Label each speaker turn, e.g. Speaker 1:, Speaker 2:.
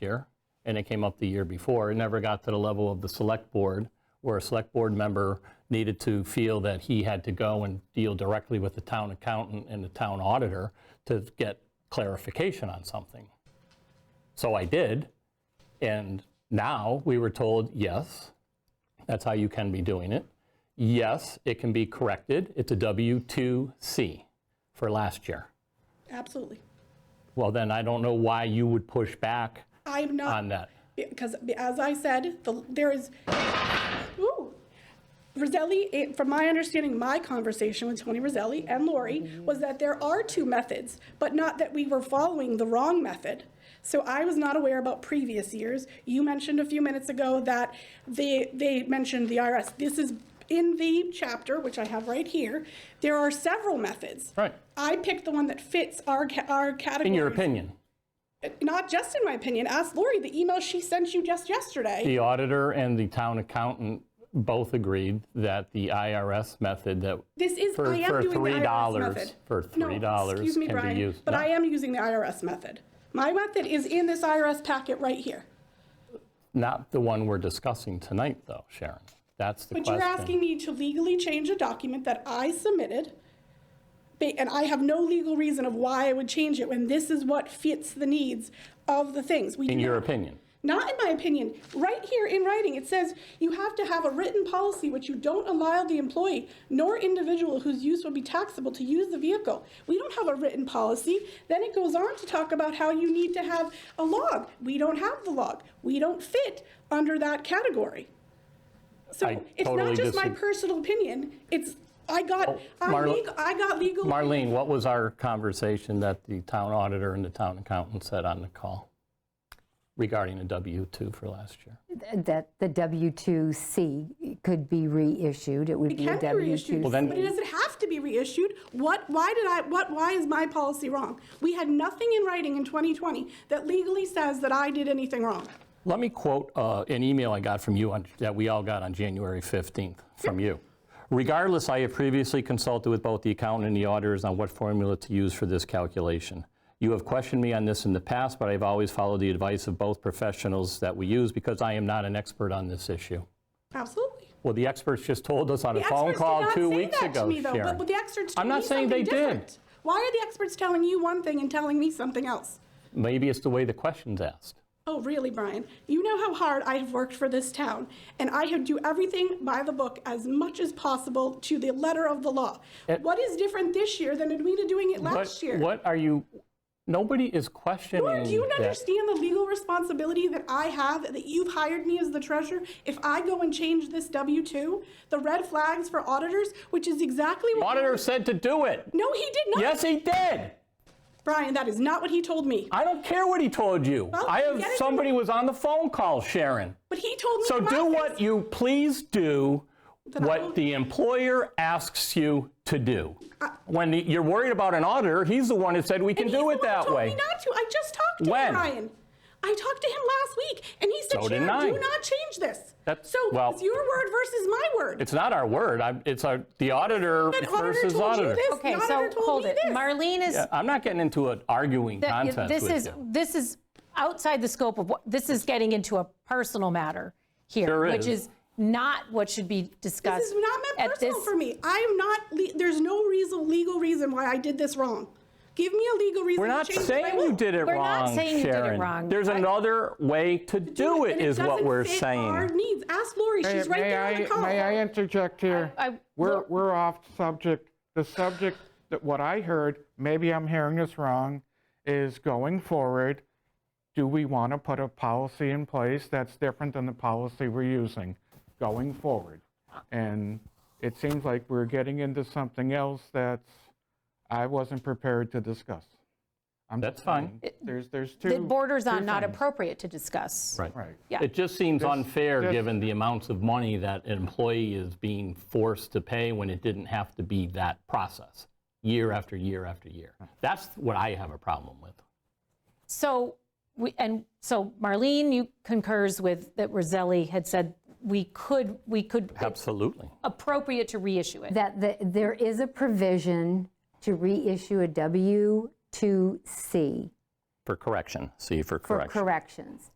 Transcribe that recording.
Speaker 1: year, and it came up the year before. It never got to the level of the select board, where a select board member needed to feel that he had to go and deal directly with the town accountant and the town auditor to get clarification on something. So I did, and now we were told, yes, that's how you can be doing it. Yes, it can be corrected. It's a W2C for last year.
Speaker 2: Absolutely.
Speaker 1: Well, then I don't know why you would push back
Speaker 2: I'm not,
Speaker 1: on that.
Speaker 2: because as I said, the- there is, ooh, Roselli, it- from my understanding, my conversation with Tony Roselli and
Speaker 1: Mm-hmm.
Speaker 2: Lori was that there are two methods, but not that we were following the wrong method. So I was not aware about previous years. You mentioned a few minutes ago that they, they mentioned the IRS. This is in the chapter, which I have right here. There are several methods.
Speaker 1: Right.
Speaker 2: I picked the one that fits our, ca- our category.
Speaker 1: In your opinion,
Speaker 2: not just in my opinion, ask Lori the email she sent you just yesterday.
Speaker 1: the auditor and the town accountant both agreed that the IRS method that
Speaker 2: This is,
Speaker 1: for-
Speaker 2: I
Speaker 1: for
Speaker 2: am doing the IRS
Speaker 1: $3,
Speaker 2: method.
Speaker 1: for
Speaker 2: No,
Speaker 1: $3
Speaker 2: excuse me,
Speaker 1: can be
Speaker 2: Brian,
Speaker 1: used.
Speaker 2: but
Speaker 1: No.
Speaker 2: I am using the IRS method. My method is in this IRS packet right here.
Speaker 1: Not the one we're discussing tonight, though, Sharon. That's the
Speaker 2: But you're asking
Speaker 1: question.
Speaker 2: me to legally change a document that I submitted, ba- and I have no legal reason of why I would change it when this is what fits the needs of the things. We
Speaker 1: In
Speaker 2: do
Speaker 1: your
Speaker 2: not-
Speaker 1: opinion,
Speaker 2: Not in my opinion. Right here in writing, it says you have to have a written policy which you don't allow the employee nor individual whose use would be taxable to use the vehicle. We don't have a written policy. Then it goes on to talk about how you need to have a log. We don't have the log. We don't fit under that category. So
Speaker 1: I
Speaker 2: it's
Speaker 1: totally Oh,
Speaker 2: not just my
Speaker 1: disag-
Speaker 2: personal opinion. It's I got I,
Speaker 1: Marla-
Speaker 2: legal, I got legal.
Speaker 1: Marlene, what was our conversation that the town auditor and the town accountant said on the call regarding a W-2 for last year?
Speaker 3: that the W-2C could be reissued, it would be a
Speaker 2: can be reissued,
Speaker 3: W-2.
Speaker 1: then-
Speaker 2: but it doesn't have to be reissued. What, why did I, what, why is my policy wrong? We had nothing in writing in 2020 that legally says that I did anything wrong.
Speaker 1: Let me quote uh, an email I got from you on, that we all got on January 15th from you. Regardless, I have previously consulted with both the accountant and the auditors on what formula to use for this calculation. You have questioned me on this in the past, but I've always followed the advice of both professionals that we use because I am not an expert on this issue.
Speaker 2: Absolutely.
Speaker 1: Well, the experts just told us on a
Speaker 2: The
Speaker 1: phone
Speaker 2: experts did
Speaker 1: call
Speaker 2: not
Speaker 1: two
Speaker 2: say
Speaker 1: weeks
Speaker 2: that to
Speaker 1: ago,
Speaker 2: me, though,
Speaker 1: Sharon.
Speaker 2: But the experts
Speaker 1: I'm
Speaker 2: told
Speaker 1: not
Speaker 2: me
Speaker 1: saying they
Speaker 2: something
Speaker 1: did.
Speaker 2: different. Why are the experts telling you one thing and telling me something else?
Speaker 1: Maybe it's the way the question's asked.
Speaker 2: Oh, really, Brian? You know how hard I have worked for this town, and I have do everything by the book as much as possible to the letter of the law. What is different this year than Edwina doing it last
Speaker 1: What,
Speaker 2: year?
Speaker 1: what are you, nobody is questioning
Speaker 2: Nor do you
Speaker 1: that.
Speaker 2: understand the legal responsibility that I have, that you've hired me as the treasurer? If I go and change this W-2, the red flags for auditors, which is exactly what.
Speaker 1: Auditor said to do it.
Speaker 2: No, he did not.
Speaker 1: Yes, he did.
Speaker 2: Brian, that is not what he told me.
Speaker 1: I don't care what he told you.
Speaker 2: Well,
Speaker 1: I have
Speaker 2: get it-
Speaker 1: somebody was on the phone call, Sharon.
Speaker 2: But he told me.
Speaker 1: So
Speaker 2: in my
Speaker 1: do
Speaker 2: face-
Speaker 1: what you please do
Speaker 2: Then I
Speaker 1: what
Speaker 2: won't-
Speaker 1: the employer asks you to do. When the- you're worried about an auditor, he's the one who said we can
Speaker 2: And he's
Speaker 1: do
Speaker 2: the
Speaker 1: it
Speaker 2: one who
Speaker 1: that
Speaker 2: told
Speaker 1: way.
Speaker 2: me not to. I just talked to
Speaker 1: When?
Speaker 2: him, Brian. I talked to him last week, and he said,
Speaker 1: So did
Speaker 2: Sharon,
Speaker 1: I.
Speaker 2: do not change this.
Speaker 1: That's-
Speaker 2: so
Speaker 1: well-
Speaker 2: it's your word versus my word.
Speaker 1: It's not our word. I'm, it's our, the auditor
Speaker 2: But auditor
Speaker 1: versus
Speaker 2: told
Speaker 1: auditor.
Speaker 2: you this.
Speaker 4: Okay,
Speaker 2: the
Speaker 4: so
Speaker 2: auditor told
Speaker 4: hold
Speaker 2: me
Speaker 4: it.
Speaker 2: this.
Speaker 4: Marlene is,
Speaker 1: I'm not getting into an arguing
Speaker 4: that-
Speaker 1: contest
Speaker 4: this
Speaker 1: with
Speaker 4: is,
Speaker 1: you.
Speaker 4: this is outside the scope of what, this is getting into a personal matter
Speaker 1: Sure
Speaker 4: here,
Speaker 1: is.
Speaker 4: which is not what should be discussed.
Speaker 2: This is not meant
Speaker 4: at
Speaker 2: personal
Speaker 4: this-
Speaker 2: for me. I am not. Le- there's no reason, legal reason why I did this wrong. Give me a legal reason.
Speaker 1: We're not
Speaker 2: to change it. I
Speaker 1: saying you
Speaker 2: will.
Speaker 1: did it
Speaker 4: We're
Speaker 1: wrong,
Speaker 4: not saying you did it
Speaker 1: Sharon.
Speaker 4: wrong.
Speaker 1: There's
Speaker 4: I-
Speaker 1: another way to do it,
Speaker 2: And
Speaker 1: is what
Speaker 2: doesn't
Speaker 1: we're
Speaker 2: fit
Speaker 1: saying.
Speaker 2: Our needs. Ask Lori. She's
Speaker 5: May-
Speaker 2: right
Speaker 5: may
Speaker 2: there on
Speaker 5: I-
Speaker 2: the call.
Speaker 5: May I interject here?
Speaker 4: I- I-
Speaker 5: We're,
Speaker 4: look-
Speaker 5: we're off subject. The subject, that what I heard, maybe I'm hearing this wrong, is going forward, do we want to put a policy in place that's different than the policy we're using going forward? And it seems like we're getting into something else that's, I wasn't prepared to discuss. I'm
Speaker 1: That's
Speaker 5: just
Speaker 1: fine.
Speaker 5: saying, There's, there's two.
Speaker 4: That borders on
Speaker 5: two
Speaker 4: not
Speaker 5: things.
Speaker 4: appropriate to discuss.
Speaker 1: Right.
Speaker 5: Right.
Speaker 4: Yeah.
Speaker 1: It just seems unfair,
Speaker 5: this-
Speaker 1: given the amounts of money that an employee is being forced to pay when it didn't have to be that process, year after year after year. That's what I have a problem with.
Speaker 4: So, we, and so Marlene, you concurs with that Roselli had said we could, we could,
Speaker 1: Absolutely.
Speaker 4: appropriate to reissue it.
Speaker 3: That the- there is a provision to reissue a W-2C
Speaker 1: for correction, C for
Speaker 3: for
Speaker 1: correction.
Speaker 3: corrections.